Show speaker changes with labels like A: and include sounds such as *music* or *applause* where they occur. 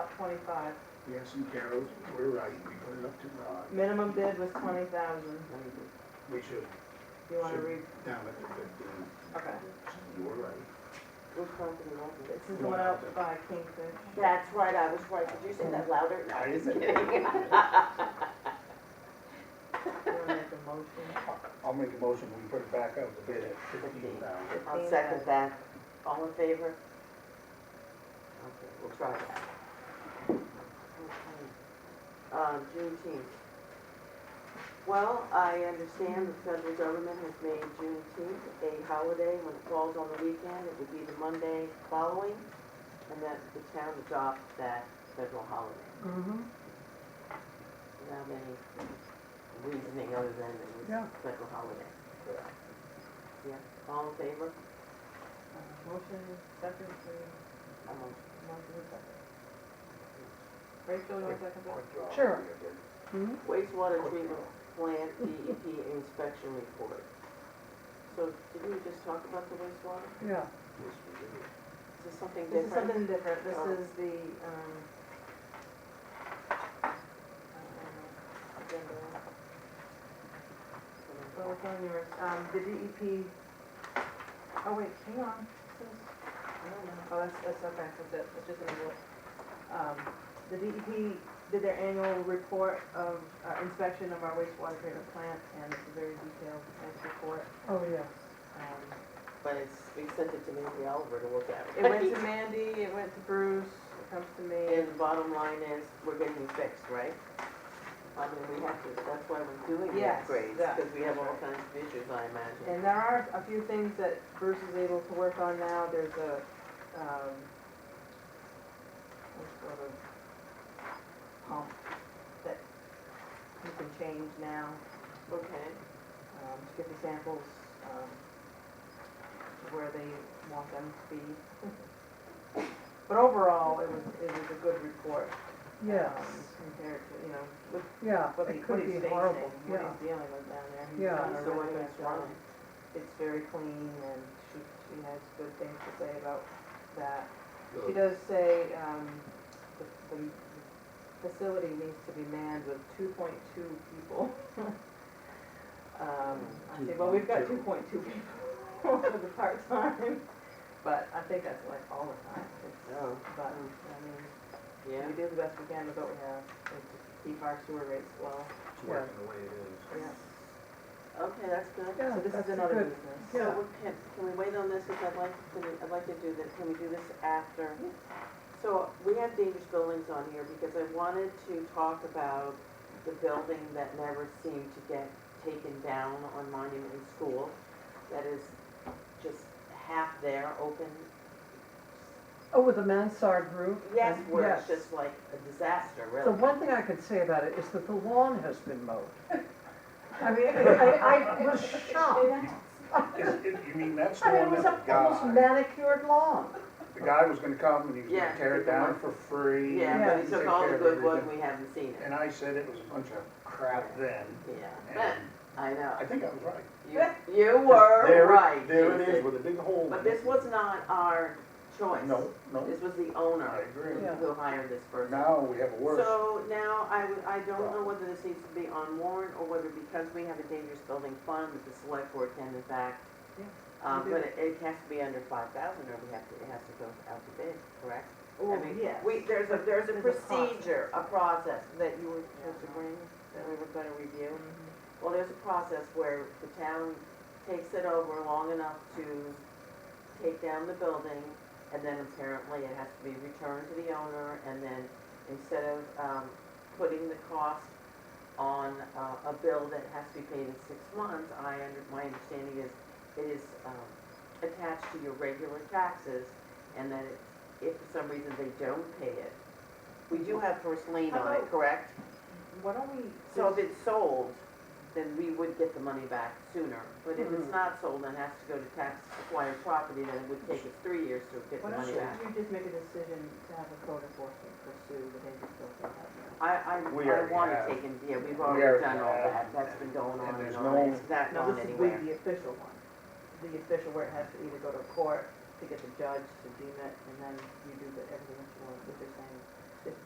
A: twenty-five.
B: Yes, and Carol, we're right, we put it up to God,
A: Minimum bid was twenty thousand.
B: we should,
A: You wanna
B: Sure.
A: read,
B: down at the fifteen,
A: okay.
B: you were right.
C: Which one can you want?
A: This is the one out by Kingfish.
C: That's right, I was right, did you say that louder? No,
B: I
C: I'm just
B: didn't.
C: kidding.
A: You wanna make a motion?
B: *laughs*
A: Uh,
B: I'll make a motion, we put it back out to bid at fifteen thousand.
C: I'll second that. All in favor? Okay, we'll try that. Okay. Uh, Juneteenth. Well, I understand the federal government has made Juneteenth a holiday. When it falls on the weekend, it would be the Monday following, and that the town adopts that federal holiday.
A: Mm-hmm.
C: Without any reasoning other than it was
B: Yeah.
C: a federal holiday. Yeah, all in favor?
A: Motion is second to,
C: I'm on.
A: motion is second. Rachel, you want second that?
D: Sure.
C: Wastewater treatment plant DEP inspection report. So did we just talk about the wastewater?
D: Yeah.
C: Is this something
A: This is
C: different?
A: something different, this
C: Oh.
A: is the, um, uh, agenda. Well, it's on yours, um, the DEP, oh wait, hang on, This is- I don't know. oh, that's, that's okay, that's it, it's just an envelope. Um, the DEP did their annual report of, uh, inspection of our wastewater treatment plant, and it's a very detailed, nice report.
D: Oh, yes.
A: Um,
C: But it's, we sent it to Mandy Oliver to look at.
A: It went to Mandy, it went to Bruce, it comes to me.
C: *laughs* And the bottom line is, we're getting it fixed, right? I mean, we have to, that's why we're doing the
A: Yes,
C: upgrades,
A: that-
C: because we have all kinds of issues, I imagine.
A: And there are a few things that Bruce is able to work on now. There's a, um, what sort of pump that you can change now,
C: Okay,
A: um, to get the samples, um, to where they want them to be. *laughs* But overall, it was, it was a good report.
D: Yes,
A: um, Compared to, you know, with
D: yeah,
A: what he,
D: it
A: what
D: could
A: he's
D: be
A: facing,
D: horrible,
A: what
D: yeah.
A: he's dealing with down there. He's
D: Yeah.
A: done a
C: so what
A: really
C: is
A: good job.
C: wrong?
A: It's very clean and she, she has good things to say about that. She does say, um, the, the facility needs to be manned with two point two people. *laughs* Um, I say, well, we've got two
B: 2.2.
A: point two people *laughs* for the part-time, but I think that's like all the time. It's-
C: Oh,
A: But, I mean,
C: yeah,
A: we do the best we can with what we have, and to keep our sewer rates low.
B: It's working the way it is.
A: Yeah.
C: okay, that's good.
D: Yeah,
A: So this is
D: that's a
A: another
D: good-
A: business.
C: So
D: Yeah.
C: we can, can we wait on this, because I'd like, to I'd like to do this, can we do this after? So we have dangerous buildings on here, because I wanted to talk about the building that never seemed to get taken down on Monument and School, that is just half there, open.
D: Oh, with the mansard roof?
C: Yes,
D: and-
C: where it's
D: yes.
C: just like a disaster,
D: The
C: really.
D: one thing I could say about it is that the lawn has been mowed. I mean, I, I was
A: *laughs*
D: shocked.
B: Is it- You mean, that's
D: I mean, it
B: one
D: was
B: that
D: a
B: the
D: almost
B: guy,
D: manicured lawn.
B: the guy was gonna come and he was
C: Yeah,
B: gonna tear it
C: he
B: down
C: went.
B: for free.
C: Yeah,
D: Yeah.
C: but
B: and
C: he took
B: take
C: all
B: care
C: the
B: of
C: good wood,
B: everything.
C: we haven't seen it,
B: And I said it was a bunch of crap then,
C: yeah.
B: and
C: I know,
B: I think I was right.
C: you, you were
B: There it-
C: right.
B: There it
C: Jason.
B: is with a big hole.
C: But
B: in it.
C: this was not our choice.
B: No, no,
C: This was the
B: I
C: owner
B: agree.
D: Yeah.
C: who hired this person.
B: Now we have a worse.
C: So now I, would- I don't know whether this needs to be on warrant or whether because we have a dangerous building fund that the select board can in fact.
A: Yeah,
C: Um,
A: we
C: but it, it has to be under five thousand or we have to, it has to go out to bid, correct? I mean, We, there's a, there's a
A: There's a process.
C: procedure, a process that you were supposed to bring, that we were gonna review. Well, there's a process where the town takes it over long enough to take down the building, and then apparently it has to be returned to the owner, and then instead of, um, putting the cost on uh, a bill that has to be paid in six months, I, under my understanding is, it is um, attached to your regular taxes, and that it- if for some reason they don't pay it, we do have first lien on it, correct?
A: Why don't we,
C: So if it's sold, then we would get the money back sooner. But if
A: Mm-hmm.
C: it's not sold and has to go to tax acquired property, then it would take us three years to get the
A: why don't
C: money
A: you
C: back.
A: you just make a decision to have a code enforcement pursue the dangerous building hazard?
C: I, I,
B: We
C: I
B: already
C: want it
B: have.
C: taken, yeah, we've
B: We
C: already
B: already
C: done all
B: have.
C: that, that's been going
B: And
C: on
B: there's
C: and on,
B: no-
C: it's not
A: No,
C: going
A: this is with
C: anywhere.
A: the official one, the official where it has to either go to court to get the judge to deem it, and then you do the, everything that you want, what you're saying.